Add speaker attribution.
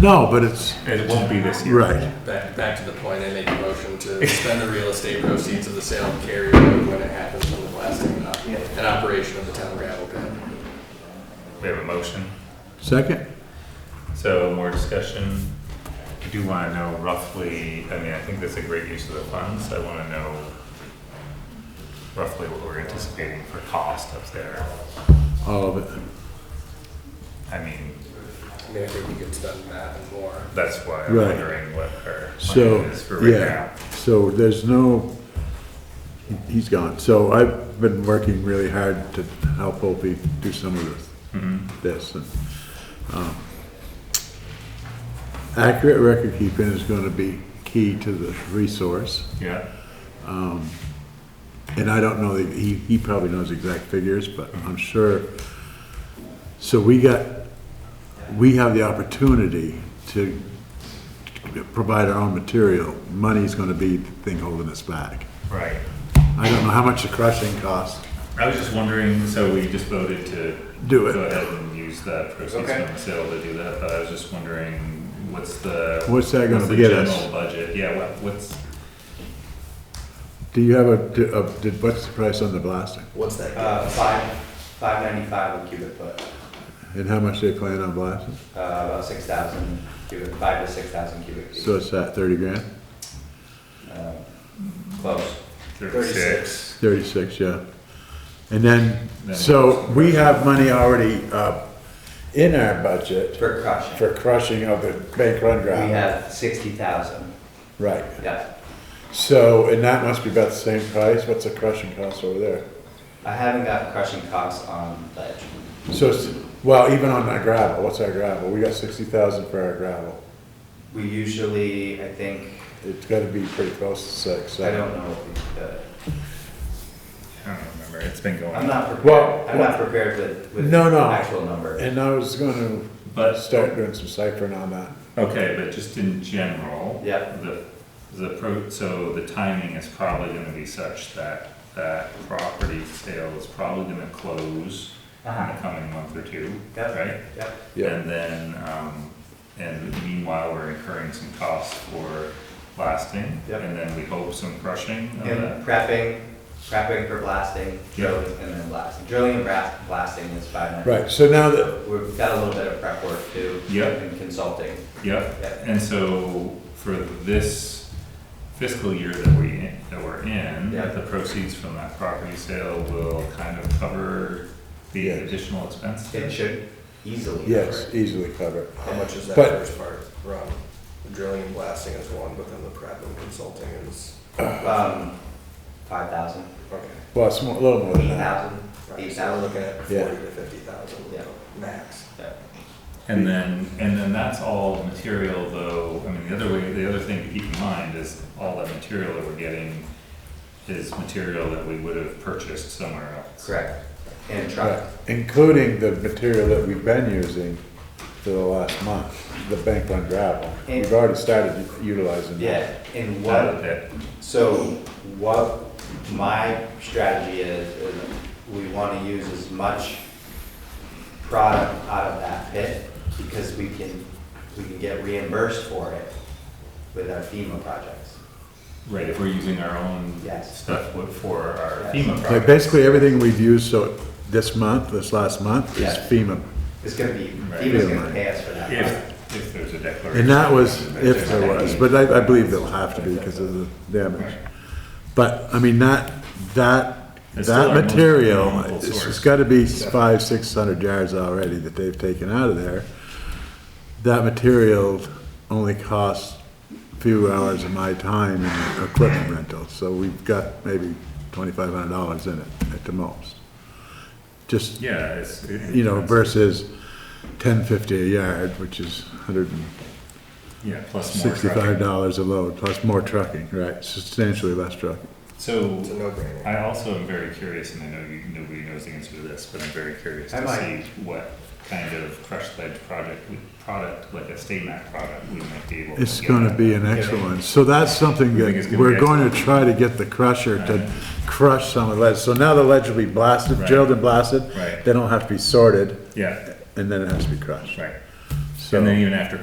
Speaker 1: No, but it's,
Speaker 2: And it won't be this year.
Speaker 1: right.
Speaker 3: Back, back to the point, I made the motion to spend the real estate proceeds of the sale of Carrier Road when it happens from the blasting and op- and operation of the town gravel pit.
Speaker 2: We have a motion,
Speaker 1: Second?
Speaker 2: so more discussion. I do wanna know roughly, I mean, I think that's a great use of the funds, I wanna know roughly what we're anticipating for cost up there.
Speaker 1: All of it.
Speaker 2: I mean,
Speaker 3: I mean, I think we could spend that and more.
Speaker 2: that's why I'm
Speaker 1: Right.
Speaker 2: wondering what our
Speaker 1: So,
Speaker 2: plan is for right now.
Speaker 1: yeah, so there's no, he's gone. So I've been working really hard to help Opie do some
Speaker 2: Mm-hmm.
Speaker 1: of this, this. and, um, Accurate record keeping is gonna be key to the resource.
Speaker 2: Yeah,
Speaker 1: And I don't know, that he, he probably knows exact figures, but I'm sure. So we got, we have the opportunity to provide our own material. Money's gonna be the thing holding us back.
Speaker 2: right.
Speaker 1: I don't know how much the crushing costs.
Speaker 2: I was just wondering, so we just voted to.
Speaker 1: Do it.
Speaker 2: Go ahead and use that proceeds
Speaker 3: Okay.
Speaker 2: from the sale to do that, but I was just wondering, what's the?
Speaker 1: What's that gonna
Speaker 2: what's the
Speaker 1: get us?
Speaker 2: general Budget, yeah, what, what's,
Speaker 1: Do you have a, do- a- did- what's the price on the blasting?
Speaker 3: What's that?
Speaker 4: Uh, five, five ninety-five a cubic foot,
Speaker 1: And how much they plan on blasting?
Speaker 4: uh, about six thousand cubic, five to six thousand cubic feet.
Speaker 1: So it's at thirty grand?
Speaker 4: Um, Close.
Speaker 2: thirty-six?
Speaker 1: Thirty-six, yeah. And then,
Speaker 2: Then-
Speaker 1: so we have money already, uh, in our budget.
Speaker 4: For crushing,
Speaker 1: For crushing of the bank run
Speaker 4: we
Speaker 1: gravel.
Speaker 4: have sixty thousand,
Speaker 1: Right.
Speaker 4: yeah.
Speaker 1: So, and that must be about the same price. What's the crushing cost over there?
Speaker 4: I haven't got crushing costs on ledge.
Speaker 1: So, it's, well, even on that gravel, what's our gravel? We got sixty thousand for our gravel.
Speaker 4: We usually, I think,
Speaker 1: It's gotta be pretty close to six,
Speaker 4: I
Speaker 1: so.
Speaker 4: don't know what the,
Speaker 2: I don't remember, it's been going.
Speaker 4: I'm not
Speaker 1: Well,
Speaker 4: prepared, I'm not prepared with, with
Speaker 1: No, no.
Speaker 4: actual number.
Speaker 1: And I was gonna
Speaker 2: But-
Speaker 1: start doing some ciphering on that.
Speaker 2: Okay, but just in general.
Speaker 4: Yeah.
Speaker 2: The, the pro, so the timing is probably gonna be such that that property sale is probably gonna close in the
Speaker 4: Uh-huh.
Speaker 2: coming month or two,
Speaker 4: Yep.
Speaker 2: right?
Speaker 4: Yep,
Speaker 1: Yeah,
Speaker 2: And then, um, and meanwhile, we're incurring some costs for blasting.
Speaker 4: Yep.
Speaker 2: And then we hope some crushing of
Speaker 4: and
Speaker 2: that.
Speaker 4: prepping, prepping for blasting,
Speaker 2: Yeah.
Speaker 4: drilling, and then blasting, drilling and bras- blasting is five ninety-five.
Speaker 1: right, so now that,
Speaker 4: We've got a little bit of prep work to do
Speaker 2: Yeah.
Speaker 4: and consulting.
Speaker 2: Yep,
Speaker 4: Yep.
Speaker 2: and so for this fiscal year that we, that we're in,
Speaker 4: Yep.
Speaker 2: the proceeds from that property sale will kind of cover the
Speaker 1: Yes.
Speaker 2: additional expense?
Speaker 4: It should easily.
Speaker 1: yes, easily covered.
Speaker 3: How much is that
Speaker 1: But-
Speaker 3: first part, Ron? Drilling and blasting is one, but then the prep and consulting is,
Speaker 4: cover. Um, five thousand,
Speaker 3: okay.
Speaker 1: Well, it's more, a little more than
Speaker 4: eight
Speaker 1: that.
Speaker 4: thousand,
Speaker 3: Right,
Speaker 4: eight
Speaker 3: so we're looking
Speaker 4: thousand.
Speaker 3: at
Speaker 1: Yeah.
Speaker 3: forty to fifty thousand
Speaker 4: Yeah.
Speaker 3: max.
Speaker 4: Yeah.
Speaker 2: And then, and then that's all material though, I mean, the other way, the other thing to keep in mind is all that material that we're getting is material that we would have purchased somewhere else.
Speaker 4: Correct. And
Speaker 1: Right,
Speaker 4: truck,
Speaker 1: Including the material that we've been using for the last month, the bank run gravel. We've already started utilizing that.
Speaker 4: yeah, and
Speaker 2: Out of
Speaker 4: what,
Speaker 2: that,
Speaker 4: so what my strategy is, is we wanna use as much product out of that pit because we can, we can get reimbursed for it with our FEMA projects.
Speaker 2: right, if we're using our own
Speaker 4: Yes.
Speaker 2: stuff for our
Speaker 4: Yes.
Speaker 2: FEMA project.
Speaker 1: Like basically everything we've used so this month, this last month is
Speaker 4: Yeah.
Speaker 1: FEMA.
Speaker 4: It's gonna be,
Speaker 2: Right.
Speaker 4: FEMA's gonna pay us for that. product.
Speaker 2: If, if there's a declaration.
Speaker 1: And that was, if there was, but I, I believe there'll have to be because of the damage. But, I mean, that, that,
Speaker 2: It's still
Speaker 1: that
Speaker 2: our most
Speaker 1: material,
Speaker 2: meaningful
Speaker 1: it's
Speaker 2: source.
Speaker 1: it's gotta be five, six hundred yards already that they've taken out of there. That material only costs a few hours of my time and equipment rental, so we've got maybe twenty-five hundred dollars in it at the most. Just
Speaker 2: Yeah, it's.
Speaker 1: you know, versus ten fifty a yard, which is hundred and
Speaker 2: Yeah, plus more
Speaker 1: sixty-five
Speaker 2: traffic.
Speaker 1: dollars a load, plus more trucking, right, substantially less trucking.
Speaker 2: So
Speaker 3: It's a no-brainer.
Speaker 2: I also am very curious, and I know you, nobody knows the answer to this, but I'm very curious
Speaker 4: I
Speaker 2: to see
Speaker 4: might.
Speaker 2: what kind of crushed ledge project, we- product, like a state map product, we might be able to.
Speaker 1: It's
Speaker 2: get
Speaker 1: gonna
Speaker 2: at.
Speaker 1: be an excellent, so that's something
Speaker 2: You think it's
Speaker 1: that,
Speaker 2: gonna
Speaker 1: we're
Speaker 2: be
Speaker 1: going to try to get the crusher
Speaker 2: Alright.
Speaker 1: to crush some of the ledge. So now the ledge will be blasted,
Speaker 2: Right.
Speaker 1: drilled and blasted.
Speaker 2: Right.
Speaker 1: They don't have to be sorted,
Speaker 2: Yeah,
Speaker 1: and then it has to be crushed.
Speaker 2: right.
Speaker 1: So.
Speaker 2: And then even after